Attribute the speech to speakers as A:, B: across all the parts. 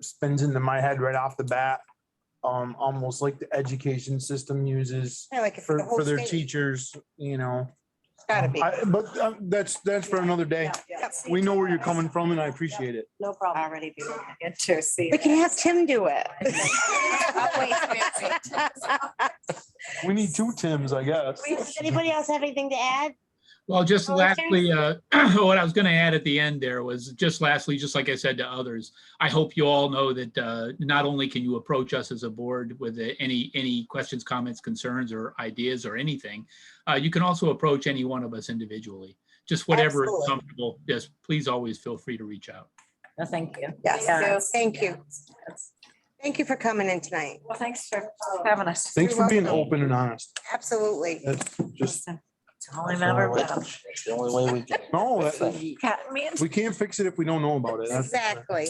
A: spins into my head right off the bat. Um, almost like the education system uses
B: Yeah, like for
A: for,
B: the whole
A: for their
B: state,
A: teachers, you know.
B: it's gotta be.
A: I- But uh, that's, that's for another day.
B: Yep.
A: We know where you're coming from and I appreciate it.
C: No problem. Already be looking into see.
B: We can ask him do it.
A: We need two Tims, I guess.
B: Does Anybody else have anything to add?
D: Well, just
B: Oh, okay.
D: lastly, uh, what I was going to add at the end there was just lastly, just like I said to others, I hope you all know that uh, not only can you approach us as a board with uh, any, any questions, comments, concerns, or ideas or anything, uh, you can also approach any one of us individually. Just whatever is
B: Absolutely.
D: comfortable, just please always feel free to reach out.
C: No, thank you.
B: Yes.
C: Yeah.
B: Thank you. Thank you for coming in tonight.
C: Well, thanks for
B: Oh.
C: having us.
A: Thanks for being open and honest.
B: Absolutely.
A: That's just,
C: It's only matter of time.
E: It's the only way we can.
A: no,
E: That's
A: that-
E: it.
C: Cat man.
A: we can't fix it if we don't know about it. That's-
B: Exactly.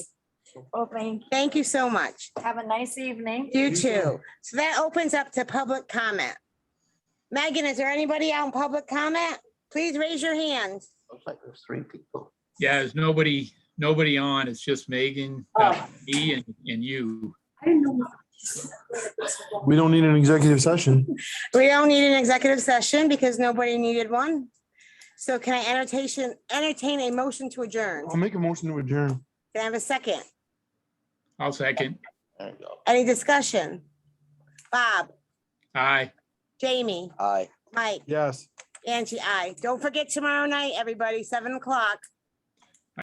C: Well, thank-
B: Thank you so much.
C: Have a nice evening.
B: You too. So that opens up to public comment. Megan, is there anybody out in public comment? Please raise your hand.
E: Looks like there's three people.
D: Yeah, there's nobody, nobody on. It's just Megan, uh, me and, and you.
A: We don't need an executive session.
B: We don't need an executive session because nobody needed one. So can I entertain, entertain a motion to adjourn?
A: I'll make a motion to adjourn.
B: Can I have a second?
D: I'll second.
E: There you go.
B: Any discussion? Bob,
D: Aye.
B: Jamie,
E: Aye.
B: Mike,
A: Yes.
B: Angie, I. Don't forget tomorrow night, everybody, seven o'clock.